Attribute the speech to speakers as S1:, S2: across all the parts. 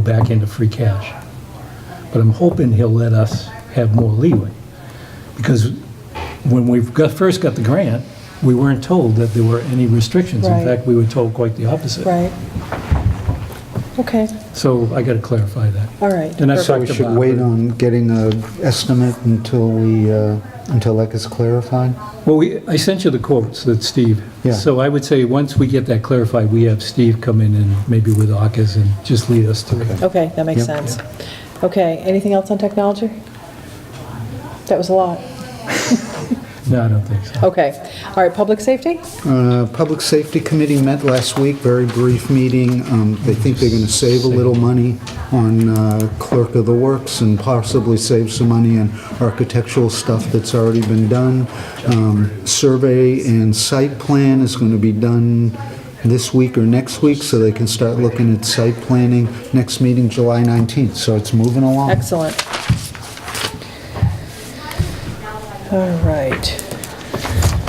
S1: go back into free cash. But I'm hoping he'll let us have more leeway. Because when we got, first got the grant, we weren't told that there were any restrictions. In
S2: Right.
S1: fact, we were told quite the opposite.
S2: Right. Okay,
S1: So I got to clarify that.
S2: all right.
S1: And that's
S3: So
S1: talked
S3: we
S1: about.
S3: should wait on getting a estimate until we, uh, until that gets clarified?
S1: Well, we, I sent you the quotes that Steve.
S3: Yeah.
S1: So I would say, once we get that clarified, we have Steve come in and maybe with AUKUS and just lead us through. it.
S2: Okay, that makes sense. Okay, anything else on technology? That was a lot.
S1: No, I don't think so.
S2: Okay, all right, public safety?
S3: Uh, Public Safety Committee met last week, very brief meeting. Um, They think they're going to save a little money on uh, clerk of the works and possibly save some money on architectural stuff that's already been done. Um, Survey and site plan is going to be done this week or next week, so they can start looking at site planning. Next meeting, July 19th, so it's moving along.
S2: Excellent. All right.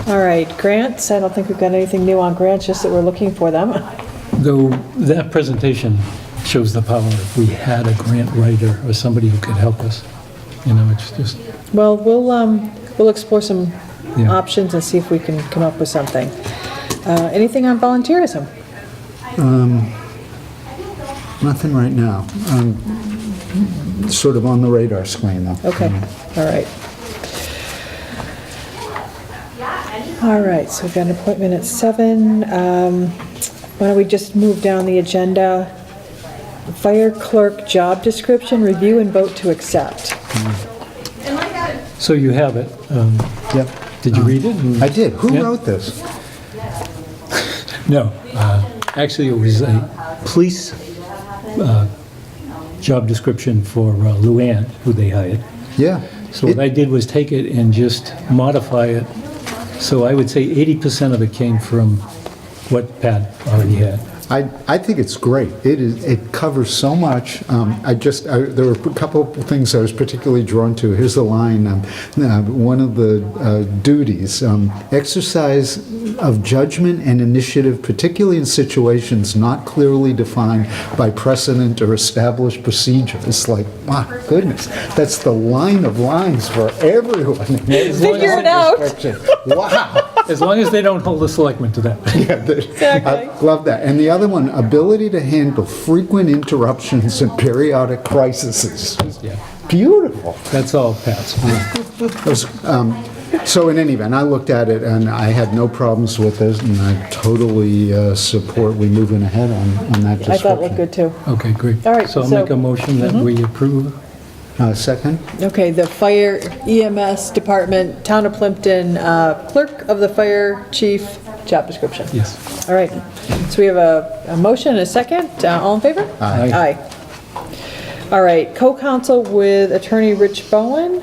S2: All right, grants, I don't think we've got anything new on grants, just that we're looking for them.
S1: Though that presentation shows the power, if we had a grant writer or somebody who could help us, you know, it's just,
S2: Well, we'll, um, we'll explore some
S1: Yeah.
S2: options and see if we can come up with something. Uh, Anything on volunteerism?
S3: Nothing right now. Um, Sort of on the radar screen, though.
S2: Okay, all right. All right, so we've got an appointment at seven. Um, Why don't we just move down the agenda? Fire clerk job description, review and vote to accept.
S1: so you have it. Um,
S3: Yep.
S1: Did you read it?
S3: mm, I did. Who
S1: Yeah.
S3: wrote this?
S1: No. Uh, Actually, it was a police uh, job description for uh, Luann, who they hired.
S3: Yeah.
S1: So what
S3: It-
S1: I did was take it and just modify it. So I would say 80% of it came from what Pat already had.
S3: I, I think it's great. It is, it covers so much. Um, I just, I, there were a couple of things I was particularly drawn to. Here's the line, um, uh, one of the uh, duties, um, exercise of judgment and initiative, particularly in situations not clearly defined by precedent or established procedure. It's like, my goodness, that's the line of lines for everyone.
S2: Figure it out.
S3: Wow.
S1: As long as they don't hold the selectmen to that.
S3: Yeah, the-
S2: Exactly.
S3: I love that. And the other one, ability to handle frequent interruptions and periodic crises.
S1: Yeah.
S3: Beautiful.
S1: That's all Pat's.
S3: It was, um, So in any event, I looked at it and I had no problems with it, and I totally uh, support we moving ahead on on that
S2: I thought it looked
S3: description.
S2: good too.
S1: Okay, great.
S2: All right,
S1: So I'll
S2: so- Mm-hmm.
S1: make a motion that we approve.
S3: Uh, Second?
S2: Okay, the fire EMS department, town of Plimpton, uh, clerk of the fire chief, job description.
S1: Yes.
S2: All right, so we have a, a motion and a second. Uh, All in favor?
S1: Aye.
S2: Aye. All right, co-counsel with attorney Rich Bowen.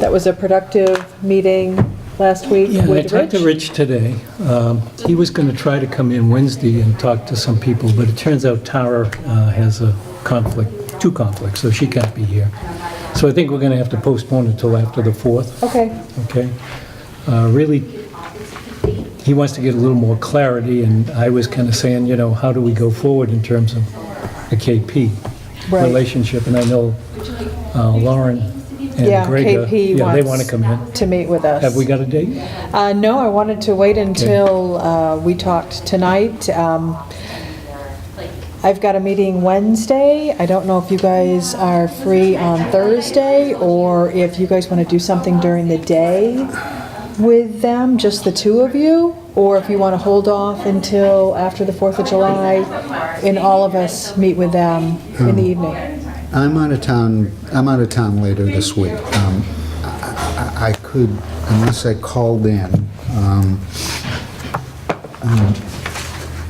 S2: That was a productive meeting last week
S1: Yeah, I
S2: with
S1: talked to
S2: Rich.
S1: Rich today. Um, He was going to try to come in Wednesday and talk to some people, but it turns out Tara uh, has a conflict, two conflicts, so she can't be here. So I think we're going to have to postpone it till after the 4th,
S2: Okay,
S1: okay? Uh, Really, he wants to get a little more clarity, and I was kind of saying, you know, how do we go forward in terms of a KP
S2: Right.
S1: relationship? And I know uh, Lauren
S2: Yeah,
S1: and Greg, uh, yeah,
S2: KP
S1: they want
S2: wants-
S1: to come in.
S2: to meet with us.
S1: Have we got a date?
S2: Uh, no, I wanted to wait until uh, we talked tonight. Um, I've got a meeting Wednesday. I don't know if you guys are free on Thursday or if you guys want to do something during the day with them, just the two of you, or if you want to hold off until after the 4th of July and all of us meet with them in the evening.
S3: I'm out of town, I'm out of town later this week. Um, I I- I could, unless I called in, um, um,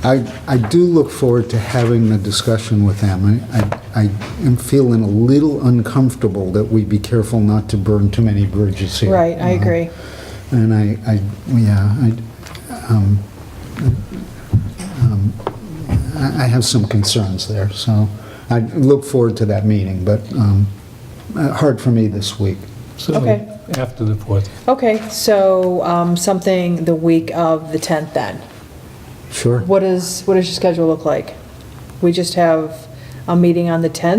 S3: I I do look forward to having the discussion with them. I- I I am feeling a little uncomfortable that we be careful not to burn too many bridges here. Uh,
S2: Right, I agree.
S3: And I, I, yeah, I, um, um, I I have some concerns there, so I look forward to that meeting, but um, uh, hard for me this week.
S1: So
S2: Okay.
S1: after the 4th.
S2: Okay, so um, something the week of the 10th then?
S3: Sure.
S2: What is, what does your schedule look like? We just have a meeting on the 10th.